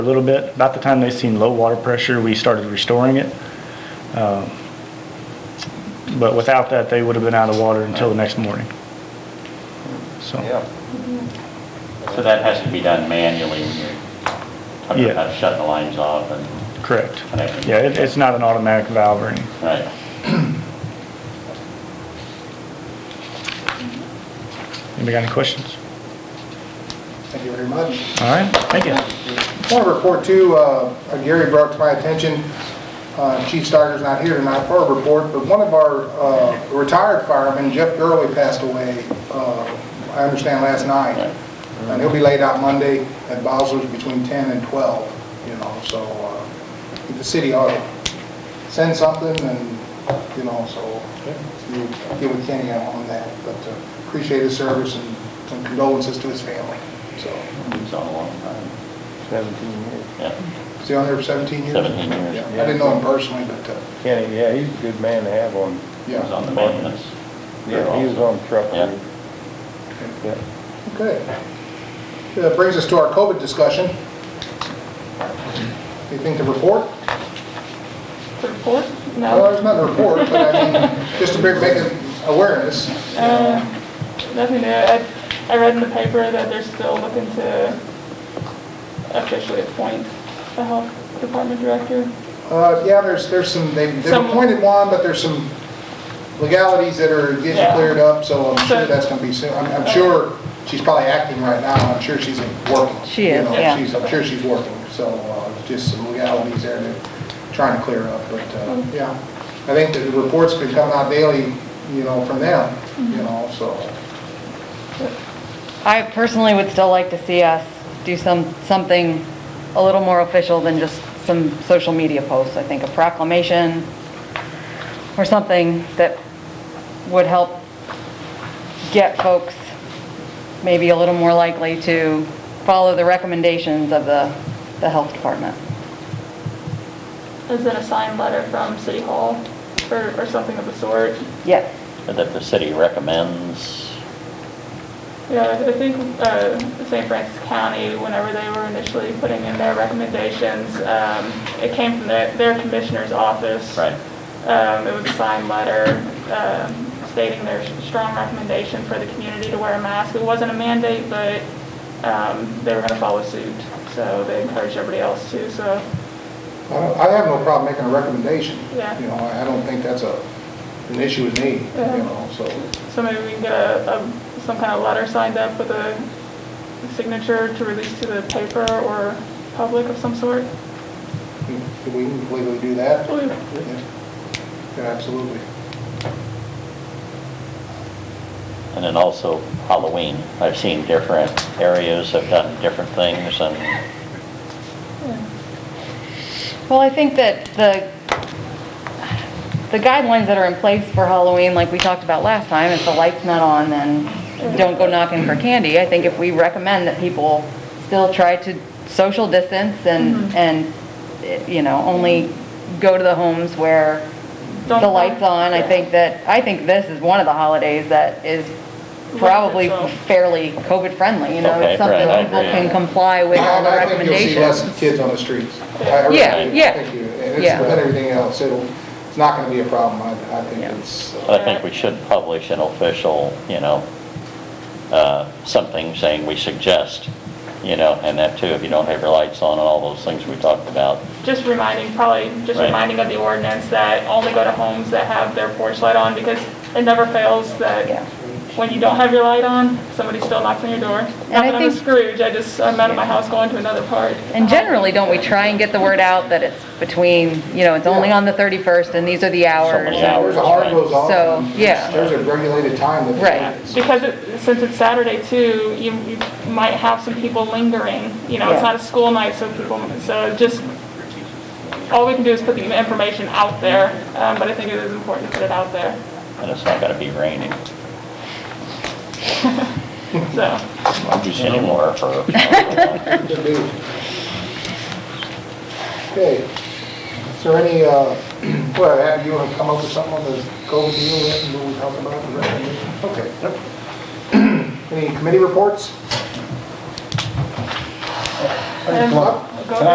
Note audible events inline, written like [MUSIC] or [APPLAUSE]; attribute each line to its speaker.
Speaker 1: a little bit. About the time they seen low water pressure, we started restoring it. Um, But without that, they would have been out of water until the next morning. So,
Speaker 2: Yeah.
Speaker 3: So that has to be done manually when you're talking
Speaker 1: Yeah.
Speaker 3: about shutting the lines off and,
Speaker 1: correct.
Speaker 3: Connecting.
Speaker 1: Yeah, it- it's not an automatic valve or anything.
Speaker 3: right?
Speaker 1: Anybody got any questions?
Speaker 2: Thank you very much.
Speaker 1: All right, thank you.
Speaker 2: I want to report too, uh, Gary brought to my attention, uh, Chief Starker's not here tonight for a report, but one of our uh, retired firemen, Jeff Gurley, passed away, uh, I understand, last night. And he'll be laid out Monday at Bowser's between 10 and 12, you know, so uh, the city ought to send something and, you know, so you get with Kenny on that, but uh, appreciate his service and some condolences to his family, so.
Speaker 3: It's on a long time.
Speaker 4: 17 years.
Speaker 3: Yeah,
Speaker 2: Is he on there for 17 years?
Speaker 3: 17 years.
Speaker 2: Yeah, I didn't know him personally, but, uh,
Speaker 4: Kenny, yeah, he's a good man to have on,
Speaker 3: it was
Speaker 2: yeah.
Speaker 3: on the maintenance.
Speaker 4: yeah, he was on truck.
Speaker 3: Yeah.
Speaker 4: route. Yeah.
Speaker 2: Okay. That brings us to our COVID discussion. Anything to report?
Speaker 5: Report?
Speaker 2: Well,
Speaker 5: No.
Speaker 2: there's not a report, but I mean, just to bring- make an awareness.
Speaker 5: Uh, Nothing new. I, I read in the paper that they're still looking to officially appoint a health department director.
Speaker 2: Uh, Yeah, there's, there's some, they- they've
Speaker 5: Some-
Speaker 2: appointed one, but there's some legalities that are getting
Speaker 5: Yeah.
Speaker 2: cleared up, so I'm sure
Speaker 5: So-
Speaker 2: that's going to be soon. I'm I'm sure she's probably acting right now, I'm sure she's working.
Speaker 6: She
Speaker 2: You
Speaker 6: is,
Speaker 2: know,
Speaker 6: yeah.
Speaker 2: she's- I'm sure she's working, so uh, just some legalities there that trying to clear up, but uh,
Speaker 5: Mm-hmm.
Speaker 2: yeah. I think that the reports could come out daily, you know, from them,
Speaker 5: Mm-hmm.
Speaker 2: you know, so.
Speaker 6: I personally would still like to see us do some, something a little more official than just some social media posts. I think a proclamation or something that would help get folks maybe a little more likely to follow the recommendations of the, the health department.
Speaker 5: Is it a signed letter from City Hall or, or something of the sort?
Speaker 6: Yes.
Speaker 3: And that the city recommends,
Speaker 5: Yeah, I think uh, St. Francis County, whenever they were initially putting in their recommendations, um, it came from their, their commissioner's office.
Speaker 3: right?
Speaker 5: Um, It was a signed letter um, stating their strong recommendation for the community to wear a mask. It wasn't a mandate, but um, they were going to follow suit, so they encouraged everybody else to, so,
Speaker 2: I don't- I have no problem making a recommendation.
Speaker 5: Yeah.
Speaker 2: You know, I I don't think that's a, an issue with me, you
Speaker 5: Yeah.
Speaker 2: know, so.
Speaker 5: so maybe we can get a, a- some kind of letter signed up with a signature to release to the paper or public of some sort.
Speaker 2: Can we legally do that?
Speaker 5: Oh, yeah.
Speaker 2: Yeah, Yeah, absolutely.
Speaker 3: And then also Halloween. I've seen different areas have done different things and
Speaker 6: Well, I think that the, the guidelines that are in place for Halloween, like we talked about last time, if the light's not on, then don't go knocking for candy. I think if we recommend that people still try to social distance
Speaker 5: Mm-hmm.
Speaker 6: and, and, eh, you know, only go to the homes where
Speaker 5: Don't
Speaker 6: the
Speaker 5: go-
Speaker 6: light's on, I
Speaker 5: yeah.
Speaker 6: think that, I think this is one of the holidays that is probably
Speaker 5: itself.
Speaker 6: fairly COVID-friendly, you know?
Speaker 3: Okay,
Speaker 6: It's something
Speaker 3: right, I
Speaker 6: people
Speaker 3: agree.
Speaker 6: can comply with all
Speaker 2: And
Speaker 6: the
Speaker 2: I think you'll see
Speaker 6: recommendations.
Speaker 2: less kids on the streets. I- I really
Speaker 6: Yeah,
Speaker 2: do.
Speaker 6: yeah.
Speaker 2: Thank you. And it's
Speaker 6: Yeah.
Speaker 2: with everything else, it'll, it's not going to be a problem. I, I think
Speaker 6: Yeah.
Speaker 2: it's, uh,
Speaker 3: I think we should publish an official, you know, uh, something saying we suggest, you know, and that too, if you don't have your lights on and all those things we talked about.
Speaker 5: Just reminding, probably, just
Speaker 3: Right.
Speaker 5: reminding of the ordinance that only go to homes that have their porch light on, because it never fails
Speaker 6: Yeah.
Speaker 5: that when you don't have your light on, somebody still knocks on your door. Not
Speaker 6: I
Speaker 5: that I'm a
Speaker 6: think-
Speaker 5: Scrooge, I just, I'm out of my house going to another part.
Speaker 6: And generally, don't we try and get the word out that it's between, you know, it's only on the 31st and these are the hours?
Speaker 3: many
Speaker 6: and-
Speaker 3: hours.
Speaker 2: there's a hard
Speaker 3: right.
Speaker 2: goes on.
Speaker 6: So,
Speaker 2: and
Speaker 6: yeah.
Speaker 2: There's a regulated time that.
Speaker 6: Right.
Speaker 5: Because it, since it's Saturday too, you, you might have some people lingering, you know, it's
Speaker 6: Yeah.
Speaker 5: not a school night, so people, so just, all we can do is put the information out there, um, but I think it is important to put it out there,
Speaker 3: And it's not gonna be raining
Speaker 5: so.
Speaker 3: anymore for.
Speaker 2: Good deal. Okay. Is there any, uh, [CLEARS THROAT] what, have you come up with something on the COVID deal yet? What we talked about, the recommendation? Okay. [CLEARS THROAT] Any committee reports?
Speaker 4: I just want,